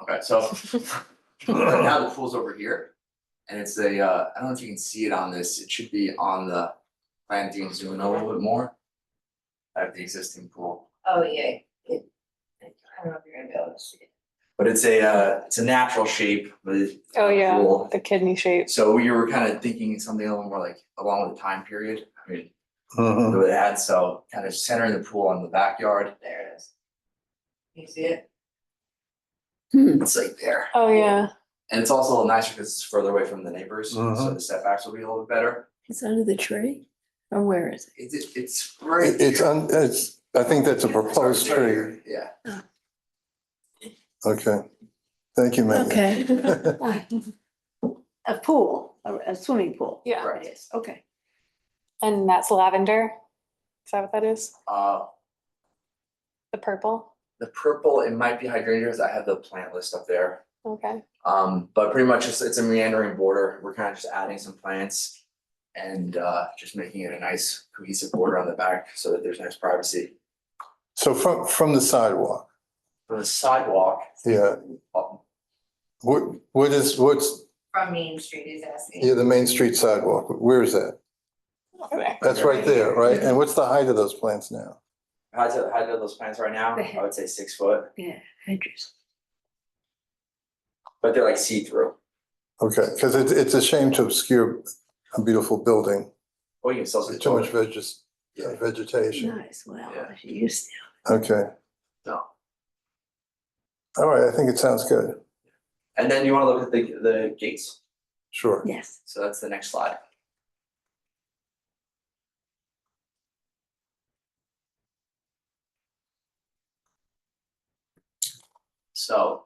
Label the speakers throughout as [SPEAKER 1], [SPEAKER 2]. [SPEAKER 1] Alright, so right now the pool's over here. And it's a, uh, I don't know if you can see it on this, it should be on the plan to zoom in a little bit more. I have the existing pool,
[SPEAKER 2] Oh, yeah, it, I don't know if you're gonna be able to see it.
[SPEAKER 1] but it's a, uh, it's a natural shape, but it's
[SPEAKER 3] Oh,
[SPEAKER 1] a
[SPEAKER 3] yeah.
[SPEAKER 1] pool.
[SPEAKER 3] The kidney shapes.
[SPEAKER 1] So we were kind of thinking something a little more like along with the time period, I mean,
[SPEAKER 4] Mhm.
[SPEAKER 1] with that, so kind of centering the pool on the backyard.
[SPEAKER 2] There it is. You see it?
[SPEAKER 1] It's like there.
[SPEAKER 3] Oh, yeah.
[SPEAKER 1] And it's also a little nicer because it's further away from the neighbors, so
[SPEAKER 4] Mhm.
[SPEAKER 1] the setbacks will be a little bit better.
[SPEAKER 5] It's under the tree? Or Oh, where is it?
[SPEAKER 1] It's, it's right
[SPEAKER 4] It's,
[SPEAKER 1] here.
[SPEAKER 4] un- it's, I think that's a proposed
[SPEAKER 1] It's right
[SPEAKER 4] tree.
[SPEAKER 1] here, Yeah.
[SPEAKER 4] Okay. Thank you, Megan.
[SPEAKER 5] Okay. A pool, a a swimming pool.
[SPEAKER 3] Yeah.
[SPEAKER 1] Right.
[SPEAKER 5] It is, okay.
[SPEAKER 3] And that's lavender. Is that what that is?
[SPEAKER 1] Uh,
[SPEAKER 3] The purple?
[SPEAKER 1] the purple, it might be hydrangeas. I have the plant list up there.
[SPEAKER 3] Okay.
[SPEAKER 1] Um, but pretty much it's, it's a meandering border. We're kind of just adding some plants and, uh, just making it a nice cohesive border on the back so that there's nice privacy.
[SPEAKER 4] So from, from the sidewalk,
[SPEAKER 1] For the sidewalk,
[SPEAKER 4] yeah,
[SPEAKER 1] uh,
[SPEAKER 4] what, what is, what's,
[SPEAKER 2] From Main Street, he's asking.
[SPEAKER 4] yeah, the Main Street sidewalk, where is that?
[SPEAKER 3] Okay.
[SPEAKER 4] That's right there, right? And what's the height of those plants now?
[SPEAKER 1] how do, how do those plants right now? I would say six foot,
[SPEAKER 5] Yeah, hedges.
[SPEAKER 1] but they're like see-through.
[SPEAKER 4] Okay, because it's, it's a shame to obscure a beautiful building.
[SPEAKER 1] Oh, you can sell some.
[SPEAKER 4] There's Too much veges-
[SPEAKER 1] Yeah.
[SPEAKER 4] vegetation.
[SPEAKER 5] Nice, well,
[SPEAKER 1] Yeah.
[SPEAKER 5] if you used
[SPEAKER 4] Okay.
[SPEAKER 1] No.
[SPEAKER 4] All right, I think it sounds good.
[SPEAKER 1] And then you wanna look at the, the gates.
[SPEAKER 4] Sure.
[SPEAKER 5] to, yes.
[SPEAKER 1] So that's the next slide. So.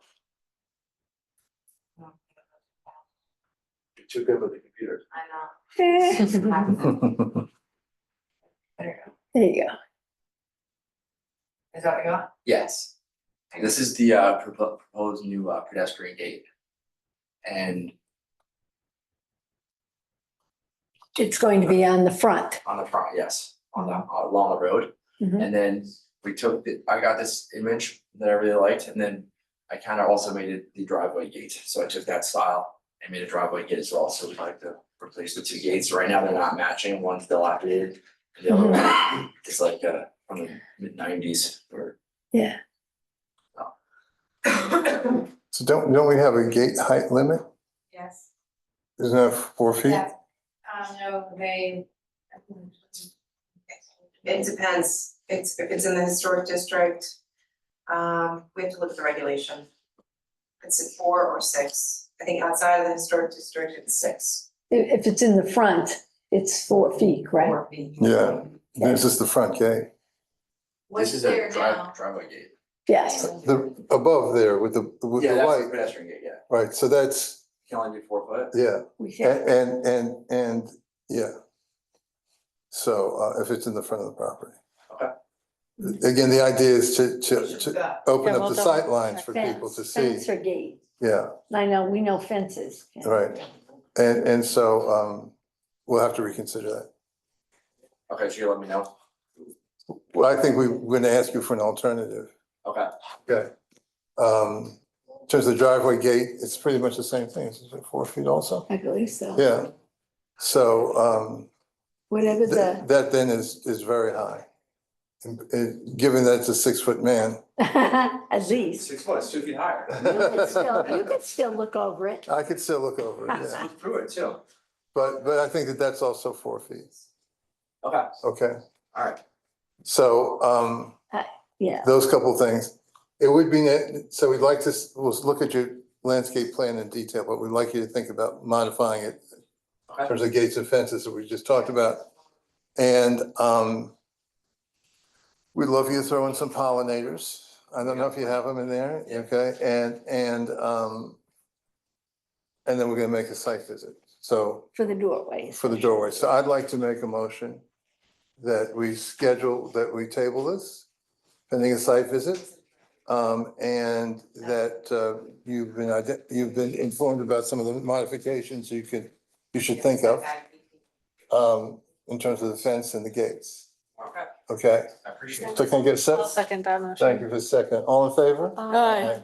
[SPEAKER 1] You're too good with the computer.
[SPEAKER 2] I
[SPEAKER 5] There
[SPEAKER 2] know. Happens. There
[SPEAKER 5] you go.
[SPEAKER 2] you go. Is that what you want?
[SPEAKER 1] Yes, And this is the uh propo- proposed new uh, pedestrian gate. And
[SPEAKER 5] It's going to be on the front.
[SPEAKER 1] on the front, yes, on the, uh, along the road.
[SPEAKER 5] Mhm.
[SPEAKER 1] And then we took, the I got this image that I really liked, and then I kind of also made it the driveway gate, so I took that style and made a driveway gate as well, so we'd like to replace the two gates, right now they're not matching, one's dilapidated. and The other one is like uh from the mid nineties or,
[SPEAKER 5] Yeah,
[SPEAKER 4] So don't, don't we have a gate height limit?
[SPEAKER 2] Yes.
[SPEAKER 4] Isn't that four feet?
[SPEAKER 2] Yeah. Um, no, they.
[SPEAKER 6] It depends, it's, if it's in the historic district, um, we have to look at the regulation. It's at four or six, I think outside of the historic district, it's six.
[SPEAKER 5] if, if it's in the front, it's four feet, right?
[SPEAKER 6] Four feet.
[SPEAKER 4] Yeah. This is the front gate.
[SPEAKER 1] this
[SPEAKER 2] What's
[SPEAKER 1] is
[SPEAKER 2] there
[SPEAKER 1] a
[SPEAKER 2] now?
[SPEAKER 1] drive, driveway gate.
[SPEAKER 5] Yes,
[SPEAKER 4] The, above there with the, with
[SPEAKER 1] Yeah,
[SPEAKER 4] the
[SPEAKER 1] that's the
[SPEAKER 4] light,
[SPEAKER 1] pedestrian gate, yeah,
[SPEAKER 4] right? So that's,
[SPEAKER 1] you can only do four foot,
[SPEAKER 4] yeah,
[SPEAKER 5] we
[SPEAKER 4] A-
[SPEAKER 5] have,
[SPEAKER 4] and, and, and, yeah. So uh, if it's in the front of the property. Okay. Again, the idea is to, to, to
[SPEAKER 2] Yeah.
[SPEAKER 4] open
[SPEAKER 3] Yeah,
[SPEAKER 4] up
[SPEAKER 3] we'll
[SPEAKER 4] the
[SPEAKER 3] double
[SPEAKER 4] sight lines
[SPEAKER 3] check
[SPEAKER 4] for
[SPEAKER 5] fence,
[SPEAKER 4] people to see.
[SPEAKER 5] fence or gate.
[SPEAKER 4] Yeah.
[SPEAKER 5] I know, we know fences. yeah.
[SPEAKER 4] Right. And, and so, um, we'll have to reconsider that.
[SPEAKER 1] okay, so you let me know,
[SPEAKER 4] Well, I think we, we're gonna ask you for an alternative.
[SPEAKER 1] okay,
[SPEAKER 4] Okay. Um, in terms of the driveway gate, it's pretty much the same thing. It's like four feet also.
[SPEAKER 5] I believe so.
[SPEAKER 4] Yeah. So, um,
[SPEAKER 5] Whatever
[SPEAKER 4] th-
[SPEAKER 5] the,
[SPEAKER 4] that then is, is very high. And, uh, given that it's a six-foot man.
[SPEAKER 5] at least.
[SPEAKER 1] six foot, it's two feet higher.
[SPEAKER 5] You could still, you could still look over it.
[SPEAKER 4] I could still look over it, yeah.
[SPEAKER 1] Look through it too,
[SPEAKER 4] But, but I think that that's also four feet.
[SPEAKER 1] okay,
[SPEAKER 4] Okay.
[SPEAKER 1] alright,
[SPEAKER 4] So, um,
[SPEAKER 5] Yeah,
[SPEAKER 4] those couple things. It would be, ne- so we'd like to, s- we'll s- look at your landscape plan in detail, but we'd like you to think about modifying it in
[SPEAKER 1] okay,
[SPEAKER 4] terms of gates and fences that we just talked about. And um, we'd love you to throw in some pollinators. I don't know if you have them in there,
[SPEAKER 1] Yeah.
[SPEAKER 4] okay? And, and um, and then we're gonna make a site visit, so
[SPEAKER 5] for the doorways.
[SPEAKER 4] for the doorway. So I'd like to make a motion that we schedule, that we table this pending a site visit. Um, and that, uh, you've been, ide- you've been informed about some of the modifications you could, you should think of, um, in terms of the fence and the gates.
[SPEAKER 1] okay,
[SPEAKER 4] Okay,
[SPEAKER 1] I appreciate it.
[SPEAKER 4] so can I get a
[SPEAKER 3] I'll
[SPEAKER 4] second?
[SPEAKER 3] second that motion.
[SPEAKER 4] Thank you for a second. All in favor?
[SPEAKER 3] Aye.
[SPEAKER 4] Aye.